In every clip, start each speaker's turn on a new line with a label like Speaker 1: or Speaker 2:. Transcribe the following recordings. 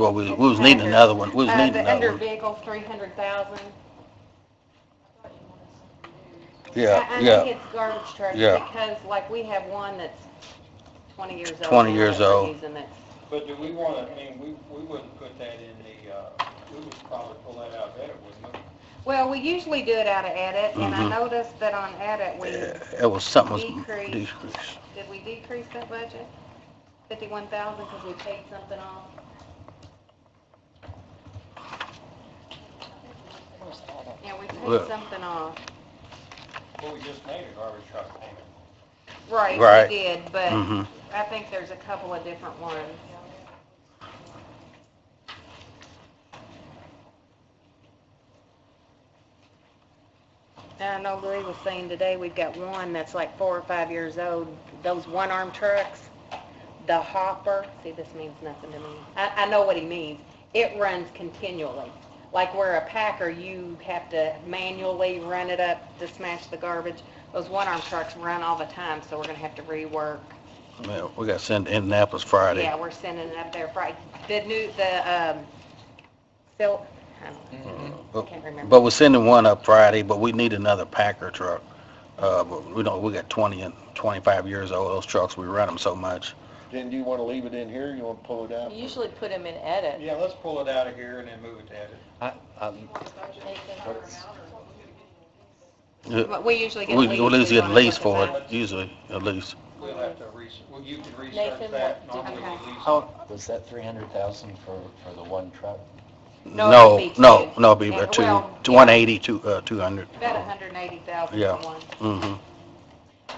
Speaker 1: Well, we, we was needing another one, we was
Speaker 2: Uh,
Speaker 1: needing
Speaker 2: the under
Speaker 1: another one.
Speaker 2: vehicle, three hundred thousand.
Speaker 1: Yeah,
Speaker 2: I
Speaker 1: yeah,
Speaker 2: think it's garbage trucks
Speaker 1: Yeah.
Speaker 2: because like we have one that's twenty years old.
Speaker 1: 20 years
Speaker 2: that we're
Speaker 1: old.
Speaker 2: using that's-
Speaker 3: But do we want to, I mean, we, we wouldn't put that in the, uh, we would probably pull that out of that, wouldn't we?
Speaker 2: Well, we usually do it out of edit and I
Speaker 1: Mhm.
Speaker 2: noticed that on edit, we,
Speaker 1: Yeah, it was something was
Speaker 2: Decrease.
Speaker 1: decreased.
Speaker 2: did we decrease that budget? Fifty-one thousand because we paid something off? Yeah, we
Speaker 1: Look.
Speaker 2: paid something off.
Speaker 3: Well, we just made a garbage truck payment.
Speaker 2: Right,
Speaker 1: Right.
Speaker 2: we did, but
Speaker 1: Mhm.
Speaker 2: I think there's a couple of different ones. And I know Louis was saying today, we've got one that's like four or five years old, those one-arm trucks, the hopper, see, this means nothing to me. I, I know what he means. It runs continually. Like where a packer, you have to manually run it up to smash the garbage. Those one-arm trucks run all the time, so we're gonna have to rework
Speaker 1: Yeah, we got sent to Indianapolis Friday.
Speaker 2: yeah, we're sending it up there Friday. The new, the, um, Phil, I don't know.
Speaker 1: Mm-hmm. But-
Speaker 2: Can't remember.
Speaker 1: But we're sending one up Friday, but we need another Packer truck. Uh, but we don't, we got twenty and twenty-five years old, those trucks, we run them so much.
Speaker 4: Then do you wanna leave it in here, you wanna pull it out?
Speaker 5: Usually put them in edit.
Speaker 3: Yeah, let's pull it out of here and then move it to edit.
Speaker 6: Um,
Speaker 1: Uh,
Speaker 2: But we
Speaker 1: We,
Speaker 2: usually get a lease.
Speaker 1: we at least
Speaker 2: We
Speaker 1: get a
Speaker 2: wanna
Speaker 1: lease
Speaker 2: put
Speaker 1: for
Speaker 2: the
Speaker 1: it, usually, at least.
Speaker 3: We'll have to research, well, you can research
Speaker 5: Nathan,
Speaker 3: that,
Speaker 5: what-
Speaker 3: normally
Speaker 2: okay.
Speaker 3: we lease.
Speaker 6: How, was that three hundred thousand for, for the one truck?
Speaker 2: No,
Speaker 1: No,
Speaker 2: it'd be
Speaker 1: no,
Speaker 2: two.
Speaker 1: no, it'd be
Speaker 2: Yeah,
Speaker 1: about two,
Speaker 2: well,
Speaker 1: two-
Speaker 2: yeah.
Speaker 1: 180, two, uh, two hundred.
Speaker 2: bill. About a hundred and eighty thousand
Speaker 1: Yeah.
Speaker 2: for one.
Speaker 1: Mm-hmm.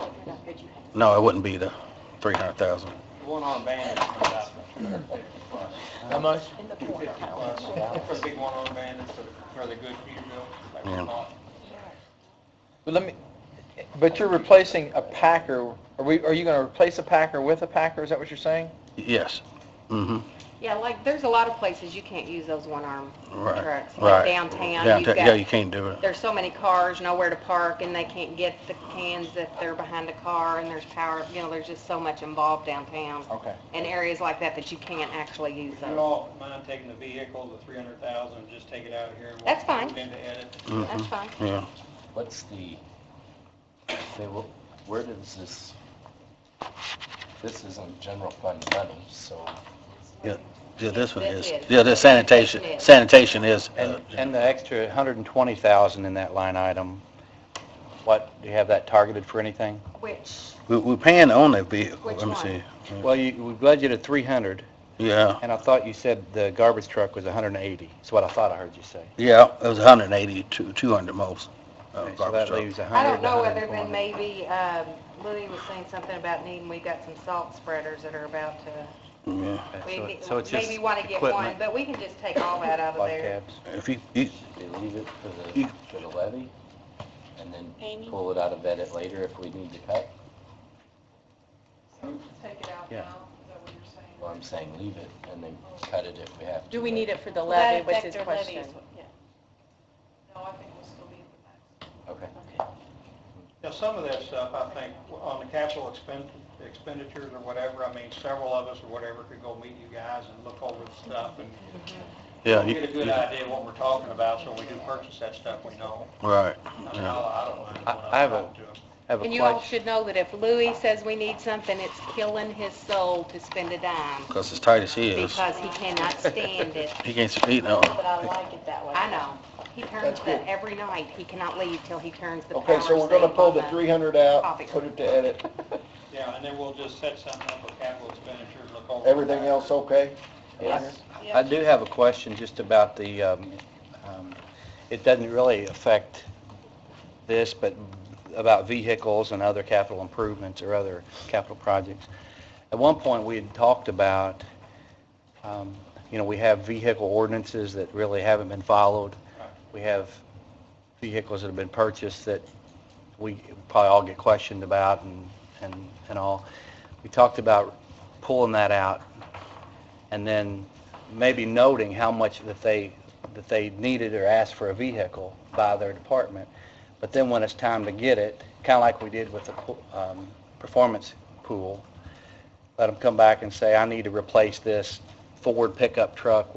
Speaker 1: No, it wouldn't be the three hundred thousand.
Speaker 3: The One on band is about
Speaker 4: How much?
Speaker 5: In the corner.
Speaker 3: plus, for the big one on band, for, for the good Peterbilt, like we
Speaker 1: Yeah.
Speaker 3: bought.
Speaker 7: But let me, but you're replacing a Packer, are we, are you gonna replace a Packer with a Packer, is that what you're saying?
Speaker 1: Yes. Mm-hmm.
Speaker 2: Yeah, like, there's a lot of places you can't use those one-arm
Speaker 1: Right,
Speaker 2: trucks.
Speaker 1: right.
Speaker 2: Like downtown, you've
Speaker 1: Downtown, yeah, you
Speaker 2: got,
Speaker 1: can't do it.
Speaker 2: there's so many cars, nowhere to park, and they can't get the cans if they're behind a car, and there's power, you know, there's just so much involved downtown.
Speaker 7: Okay.
Speaker 2: And areas like that that you can't actually use
Speaker 3: If you
Speaker 2: those.
Speaker 3: all mind taking the vehicle, the three hundred thousand, just take it out of here and we'll
Speaker 2: That's fine.
Speaker 3: move it into edit.
Speaker 2: That's
Speaker 8: Mm-hmm.
Speaker 1: Mhm.
Speaker 2: fine.
Speaker 1: Yeah.
Speaker 6: What's the, they, will- where does this, this isn't general fund money, so
Speaker 1: Yeah, this one
Speaker 2: This
Speaker 1: is,
Speaker 2: is.
Speaker 1: yeah, the sanitation,
Speaker 2: Sanitation is.
Speaker 1: sanitation is, uh,
Speaker 8: And, and the extra 120,000 in that line item, what, do you have that targeted for anything?
Speaker 2: Which,
Speaker 1: we, we paying on that vehicle,
Speaker 2: Which
Speaker 1: let me
Speaker 2: one?
Speaker 1: see.
Speaker 8: Well, you, we budgeted 300,
Speaker 1: Yeah,
Speaker 8: and I thought you said the garbage truck was 180, is what I thought I heard you say.
Speaker 1: yeah, it was a hundred and eighty, two, two hundred most, uh,
Speaker 8: So
Speaker 1: garbage
Speaker 8: that
Speaker 1: truck.
Speaker 8: leaves 100,
Speaker 2: I don't know other
Speaker 8: 120.
Speaker 2: than maybe, um, Louis was saying something about needing, we've got some salt spreaders that are about to,
Speaker 1: Yeah.
Speaker 8: Okay,
Speaker 2: we
Speaker 8: so
Speaker 2: ne-
Speaker 8: it- So it's just
Speaker 2: maybe want to get one,
Speaker 8: equipment,
Speaker 2: but we can just take all that out of
Speaker 8: like
Speaker 2: there.
Speaker 8: cabs.
Speaker 1: If you, you,
Speaker 6: they leave it for the,
Speaker 1: You-
Speaker 6: for the levy? And then
Speaker 5: Amy?
Speaker 6: pull it out of edit later if we need to cut?
Speaker 5: Take it out
Speaker 8: Yeah.
Speaker 6: Well, I'm saying leave it and then cut it if we have to.
Speaker 5: Do we need it for the
Speaker 9: Will that
Speaker 5: levy, was his
Speaker 9: affect our levy
Speaker 5: question?
Speaker 9: as well? Yeah. No, I think we'll still be in the back.
Speaker 6: Okay.
Speaker 3: Now, some of that stuff, I think, on the capital expen- expenditures or whatever, I mean, several of us or whatever could go meet you guys and look over the stuff and
Speaker 1: yeah, you,
Speaker 3: get a good
Speaker 1: you-
Speaker 3: idea of what we're talking about, so when we do purchase that stuff, we know.
Speaker 1: right,
Speaker 3: I mean,
Speaker 1: yeah.
Speaker 3: I I don't mind
Speaker 8: I-
Speaker 3: when
Speaker 8: I
Speaker 3: I
Speaker 8: have a-
Speaker 3: talk to them.
Speaker 8: Have a
Speaker 2: And you all
Speaker 8: question.
Speaker 2: should know that if Louis says we need something, it's killing his soul to spend a dime
Speaker 1: Because as tight as he is,
Speaker 2: because he cannot stand it.
Speaker 1: he can't, s- he, no,
Speaker 9: But I like it that way.
Speaker 2: I know. He turns
Speaker 4: That's cool.
Speaker 2: that every night. He cannot leave till he turns the power
Speaker 4: Okay, so we're
Speaker 2: saved
Speaker 4: gonna pull
Speaker 2: on
Speaker 4: the three hundred out,
Speaker 2: copier.
Speaker 4: put it to edit,
Speaker 3: Yeah, and then we'll just set something up for capital expenditures, look over.
Speaker 4: everything else okay?
Speaker 6: Yes.
Speaker 8: I do have a question just about the, um, um, it doesn't really affect this, but about vehicles and other capital improvements or other capital projects. At one point, we had talked about, um, you know, we have vehicle ordinances that really haven't been followed. We have vehicles that have been purchased that we probably all get questioned about and, and and all. We talked about pulling that out and then maybe noting how much that they, that they needed or asked for a vehicle by their department. But then when it's time to get it, kind of like we did with the pool- um, performance pool, let them come back and say, I need to replace this Ford pickup truck